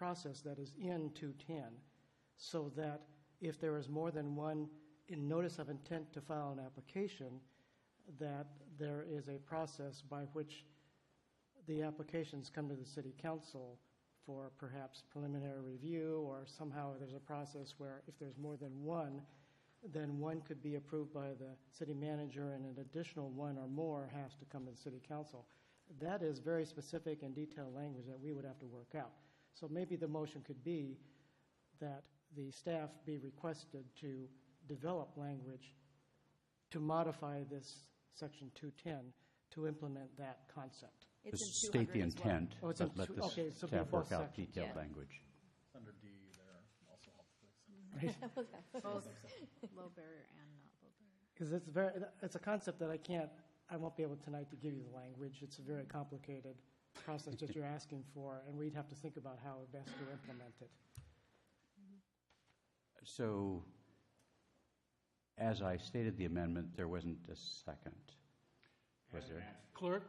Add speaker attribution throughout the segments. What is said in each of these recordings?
Speaker 1: process that is in 210, so that if there is more than one in notice of intent to file an application, that there is a process by which the applications come to the city council for perhaps preliminary review, or somehow there's a process where if there's more than one, then one could be approved by the city manager, and an additional one or more has to come to the city council. That is very specific and detailed language that we would have to work out. So maybe the motion could be that the staff be requested to develop language to modify this section 210 to implement that concept.
Speaker 2: It's
Speaker 3: Just
Speaker 2: in
Speaker 3: state the
Speaker 2: 200 as well.
Speaker 3: intent,
Speaker 1: Oh, it's
Speaker 3: but
Speaker 1: in
Speaker 3: let
Speaker 1: two- okay,
Speaker 3: the
Speaker 1: so
Speaker 3: staff
Speaker 1: both
Speaker 3: work out
Speaker 1: sections.
Speaker 3: detailed
Speaker 2: Yeah.
Speaker 3: language.
Speaker 4: Under D there, also helpful.
Speaker 5: Both low barrier and not low barrier.
Speaker 1: Because it's very, it's a concept that I can't, I won't be able tonight to give you the language. It's a very complicated process that you're asking for, and we'd have to think about how best to implement it.
Speaker 3: So, as I stated the amendment, there wasn't a second, was there?
Speaker 6: Clerk?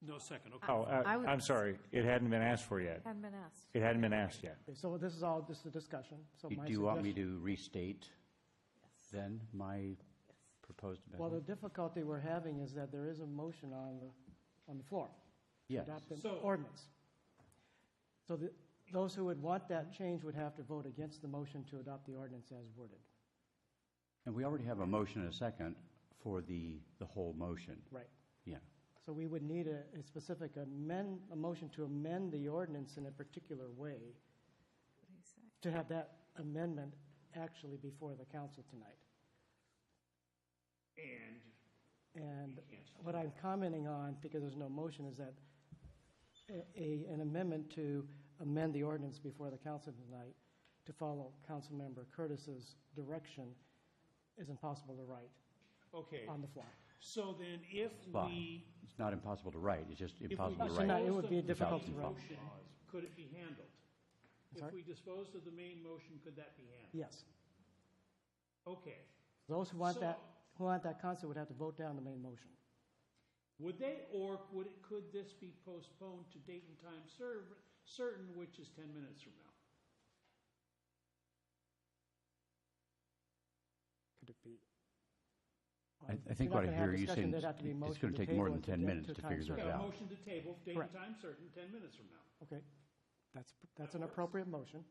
Speaker 6: No second, okay.
Speaker 7: Oh, uh,
Speaker 5: I would-
Speaker 7: I'm sorry, it hadn't been asked for yet.
Speaker 5: Hadn't been asked.
Speaker 7: It hadn't been asked yet.
Speaker 1: Okay, So this is all just a discussion, so
Speaker 3: You-
Speaker 1: my
Speaker 3: Do you want me
Speaker 1: suggestion-
Speaker 3: to restate then my proposed
Speaker 1: Well, the
Speaker 3: amendment?
Speaker 1: difficulty we're having is that there is a motion on the, on the floor. to
Speaker 3: Yes,
Speaker 1: Adopt an
Speaker 6: So-
Speaker 1: ordinance. So the, those who would want that change would have to vote against the motion to adopt the ordinance as worded.
Speaker 3: and we already have a motion and a second for the, the whole motion,
Speaker 1: Right.
Speaker 3: yeah.
Speaker 1: So we would need a, a specific amend, a motion to amend the ordinance in a particular way to have that amendment actually before the council tonight. And? And what I'm commenting on, because there's no motion, is that a- a, an amendment to amend the ordinance before the council tonight to follow Councilmember Curtis's direction is impossible to write
Speaker 6: Okay,
Speaker 1: on the fly.
Speaker 6: so then if
Speaker 3: Fine.
Speaker 6: we.
Speaker 3: It's not impossible to write, it's just
Speaker 6: if we
Speaker 3: impossible to
Speaker 1: Actually, no,
Speaker 3: write.
Speaker 1: it
Speaker 6: disposed
Speaker 1: would
Speaker 6: of
Speaker 1: be
Speaker 6: the
Speaker 1: difficult
Speaker 6: main
Speaker 1: to write.
Speaker 6: motion, Could it be handled? If
Speaker 1: sorry?
Speaker 6: we disposed of the main motion, could that be handled?
Speaker 1: Yes.
Speaker 6: Okay,
Speaker 1: Those who want
Speaker 6: So-
Speaker 1: that, who want that concept would have to vote down the main motion.
Speaker 6: would they, or would it, could this be postponed to date and time cer- certain, which is ten minutes from now?
Speaker 1: Could it be?
Speaker 3: I-
Speaker 1: Well,
Speaker 3: I
Speaker 1: if
Speaker 3: think
Speaker 1: you're
Speaker 3: what
Speaker 1: not
Speaker 3: I
Speaker 1: gonna have
Speaker 3: hear you
Speaker 1: discussion,
Speaker 3: saying
Speaker 1: there'd
Speaker 3: is
Speaker 1: have to be
Speaker 3: it- it's
Speaker 1: motion
Speaker 3: gonna take more
Speaker 1: table
Speaker 3: than
Speaker 1: it
Speaker 3: 10
Speaker 1: get
Speaker 3: minutes to
Speaker 1: time
Speaker 3: figure that
Speaker 1: certain.
Speaker 6: Yeah,
Speaker 3: out.
Speaker 6: motion to table, date and
Speaker 1: Correct.
Speaker 6: time certain, ten minutes from now.
Speaker 1: Okay, that's, that's an appropriate motion.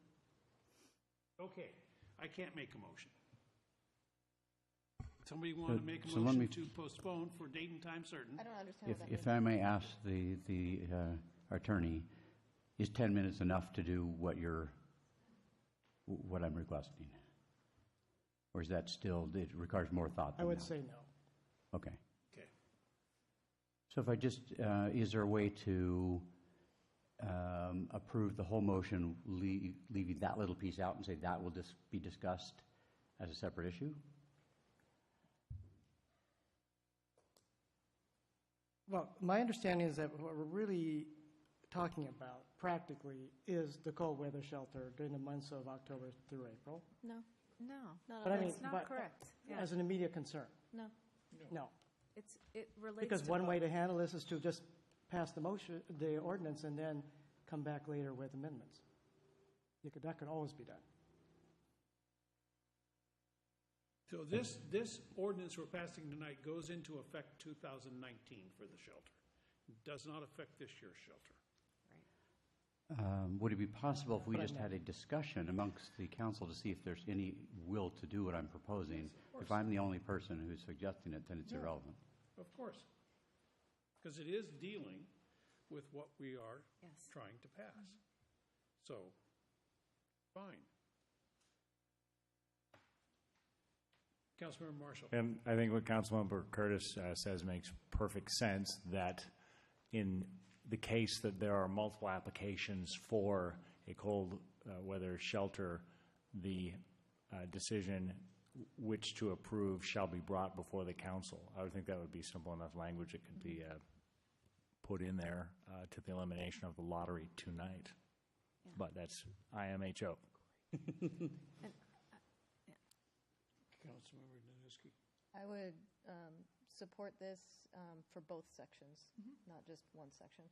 Speaker 6: Okay, I can't make a motion. Somebody
Speaker 3: So-
Speaker 6: want to make a
Speaker 3: so let
Speaker 6: motion
Speaker 3: me-
Speaker 6: to postpone for date and time certain?
Speaker 2: I don't understand
Speaker 3: If,
Speaker 2: what that means.
Speaker 3: if I may ask the, the uh, attorney, is 10 minutes enough to do what you're, what I'm requesting? Or is that still, it requires more thought
Speaker 1: I
Speaker 3: than
Speaker 1: would
Speaker 3: that?
Speaker 1: say no.
Speaker 3: Okay.
Speaker 6: Okay.
Speaker 3: So if I just, uh, is there a way to um, approve the whole motion, lea- leaving that little piece out and say that will dis- be discussed as a separate issue?
Speaker 1: Well, my understanding is that what we're really talking about practically is the cold weather shelter during the months of October through April.
Speaker 2: No,
Speaker 5: No,
Speaker 2: not
Speaker 1: But I
Speaker 2: on
Speaker 1: mean,
Speaker 2: this,
Speaker 5: that's not
Speaker 1: but-
Speaker 5: correct. Yeah.
Speaker 1: As an immediate concern,
Speaker 2: no.
Speaker 1: no.
Speaker 5: It's, it relates to.
Speaker 1: Because one way
Speaker 5: both.
Speaker 1: to handle this is to just pass the motion, the ordinance, and then come back later with amendments. You could, that could always be done.
Speaker 6: So this, this ordinance we're passing tonight goes into effect 2019 for the shelter. Does not affect this year's shelter.
Speaker 3: Um, Would it be possible if we
Speaker 1: But I
Speaker 3: just
Speaker 1: know.
Speaker 3: had a discussion amongst the council to see if there's any will to do what I'm proposing? If I'm the only person who's suggesting it, then it's
Speaker 6: No.
Speaker 3: irrelevant.
Speaker 6: Of course. Because it is dealing with what we are
Speaker 5: Yes.
Speaker 6: trying to pass. So, fine. Councilmember Marshall?
Speaker 7: And I think what Councilmember Curtis uh, says makes perfect sense, that in the case that there are multiple applications for a cold uh, weather shelter, the uh, decision which to approve shall be brought before the council. I would think that would be simple enough language that could be uh, put in there uh, to the elimination of the lottery tonight. But that's IMHO.
Speaker 6: Councilmember Danuski?
Speaker 2: I
Speaker 5: Mm-hmm.
Speaker 2: would um, support this um, for both sections, not just one section.